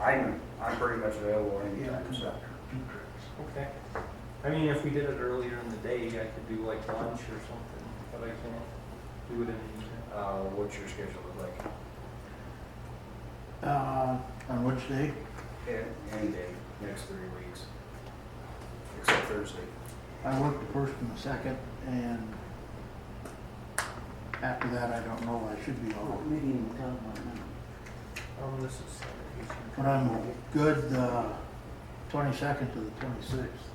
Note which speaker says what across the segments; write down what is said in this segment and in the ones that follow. Speaker 1: I'm, I'm pretty much available anytime, so.
Speaker 2: Okay. I mean, if we did it earlier in the day, I could do like lunch or something, but I can't do it in the evening.
Speaker 1: Uh, what's your schedule look like?
Speaker 3: Uh, on which day?
Speaker 1: A- Any day, next three weeks. Except Thursday.
Speaker 3: I work the first and the second, and after that, I don't know, I should be off.
Speaker 4: Maybe you can tell them what now.
Speaker 2: Um, this is Saturday.
Speaker 3: But I'm good, uh, twenty-second to the twenty-sixth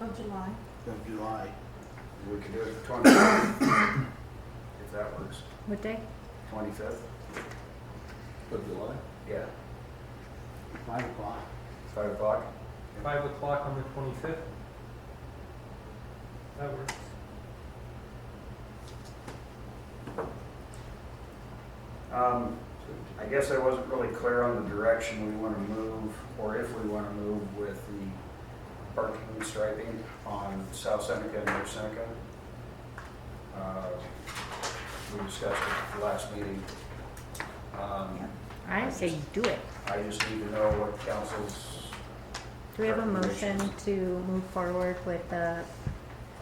Speaker 5: Of July.
Speaker 3: of July,
Speaker 1: We could do it the 25th, if that works.
Speaker 5: What day?
Speaker 1: 25th?
Speaker 6: Of July?
Speaker 1: Yeah,
Speaker 3: five o'clock.
Speaker 1: 5 o'clock?
Speaker 2: Five o'clock on the twenty-fifth. That works.
Speaker 1: Um, I guess I wasn't really clear on the direction we want to move, or if we want to move with the parking and striping on South Seneca and North Seneca. Uh, We discussed it at the last meeting. Um,
Speaker 7: I say do it.
Speaker 1: I just need to know what council's,
Speaker 7: Do we have a motion
Speaker 1: Recommendations.
Speaker 7: to move forward with the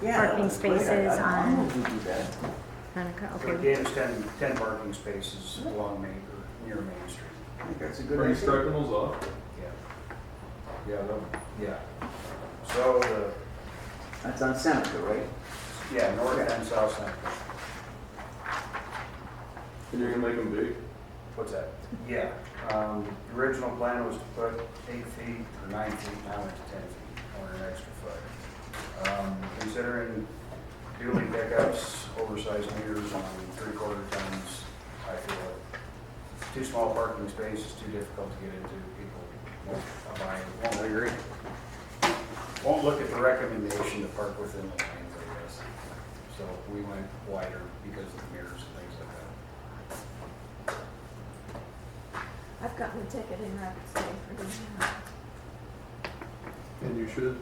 Speaker 4: Yeah,
Speaker 7: Parking
Speaker 4: that's great. I-
Speaker 7: spaces
Speaker 4: I'm- I'm
Speaker 7: on-
Speaker 4: going to do that.
Speaker 7: Hanukkah?
Speaker 1: so
Speaker 7: Okay.
Speaker 1: again, it's 10, 10 parking spaces along Main, or near Main Street.
Speaker 4: I think that's a good
Speaker 6: Are you
Speaker 4: idea.
Speaker 6: striping those off?
Speaker 1: Yeah. Yeah, no, yeah. So, the
Speaker 4: That's on Seneca, right?
Speaker 1: yeah, north and south Seneca.
Speaker 6: And you're gonna make them big?
Speaker 1: What's that? Yeah, um, the original plan was to put eight feet or nine feet, now it's ten feet, or an extra foot. Um, considering dually pickups, oversized meters on three-quarter tons, I feel it- too small parking space is too difficult to get into, people won't abide, won't agree. Won't look at the recommendation to park within the lanes, I guess. So we went wider because of the mirrors and things like that.
Speaker 5: I've gotten a ticket in Rapid City for doing that.
Speaker 6: And you should.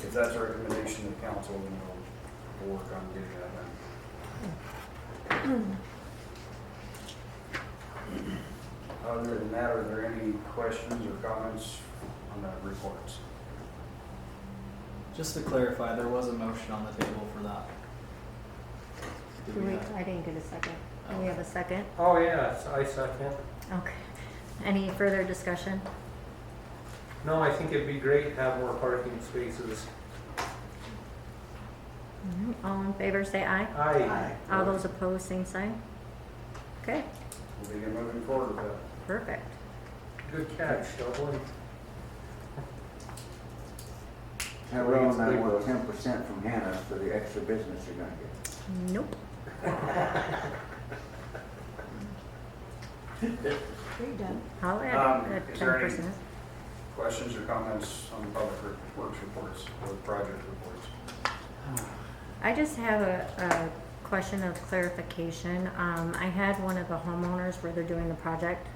Speaker 1: If that's a recommendation to council, then we'll work on getting that done. Other than that, are there any questions or comments on the reports?
Speaker 8: Just to clarify, there was a motion on the table for that. Did
Speaker 7: Do we,
Speaker 8: not?
Speaker 7: I didn't get a second. Do we have a second?
Speaker 2: Oh, yeah, I second.
Speaker 7: Okay. Any further discussion?
Speaker 2: No, I think it'd be great to have more parking spaces.
Speaker 7: Mhm. All in favor, say aye.
Speaker 2: Aye.
Speaker 7: All those opposed, same sign. Okay,
Speaker 1: We'll begin moving forward with that.
Speaker 7: perfect.
Speaker 2: Good catch, Dublin.
Speaker 4: That way it's not worth ten percent from Hannah for the extra business you're gonna get.
Speaker 7: Nope.
Speaker 5: Are you done?
Speaker 1: Um,
Speaker 7: Holler at it at
Speaker 1: is
Speaker 7: ten
Speaker 1: there any-
Speaker 7: percent.
Speaker 1: Questions or comments on the public re- works reports or project reports?
Speaker 7: I just have a, a question of clarification. Um, I had one of the homeowners where they're doing the project.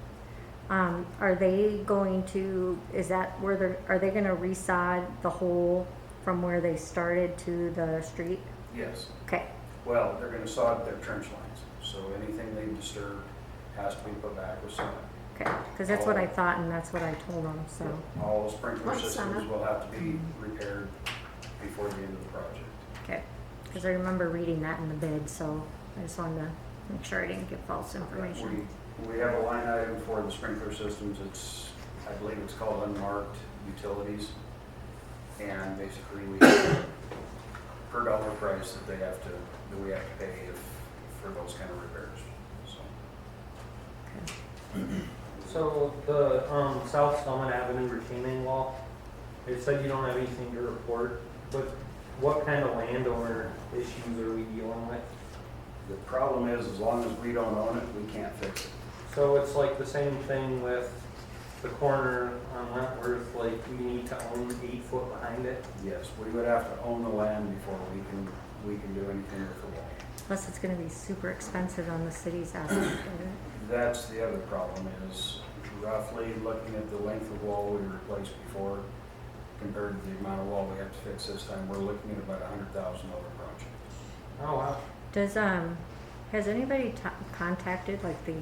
Speaker 7: Um, are they going to, is that where they're, are they gonna resod the hole from where they started to the street?
Speaker 1: Yes.
Speaker 7: Okay,
Speaker 1: Well, they're gonna sod their trench lines, so anything they disturb has to be put back with sod.
Speaker 7: okay, cause that's what I thought and that's what I told them, so,
Speaker 1: All sprinkler
Speaker 5: Like
Speaker 1: systems
Speaker 5: summer. Mm-hmm.
Speaker 1: will have to be repaired before the end of the project.
Speaker 7: okay. Cause I remember reading that in the bid, so I just wanted to make sure I didn't give false information.
Speaker 1: We, we have a line item for the sprinkler systems, it's, I believe it's called unmarked utilities. And basically, we, per dollar price that they have to, that we have to pay if, for those kind of repairs, so.
Speaker 7: Okay.
Speaker 2: So the, um, South Summit Avenue retaining wall, it said you don't have anything to report, but what kind of landowner issues are we dealing with?
Speaker 1: The problem is, as long as we don't own it, we can't fix it.
Speaker 2: So it's like the same thing with the corner on Wentworth, like we need to own eight foot behind it.
Speaker 1: Yes, we would have to own the land before we can, we can do anything with the wall.
Speaker 7: Plus, it's gonna be super expensive on the city's aspect of it.
Speaker 1: That's the other problem is roughly looking at the length of wall we replaced before compared to the amount of wall we have to fix this time, we're looking at about a hundred thousand dollar project.
Speaker 2: Oh, wow.
Speaker 7: Does, um, has anybody ta- contacted like the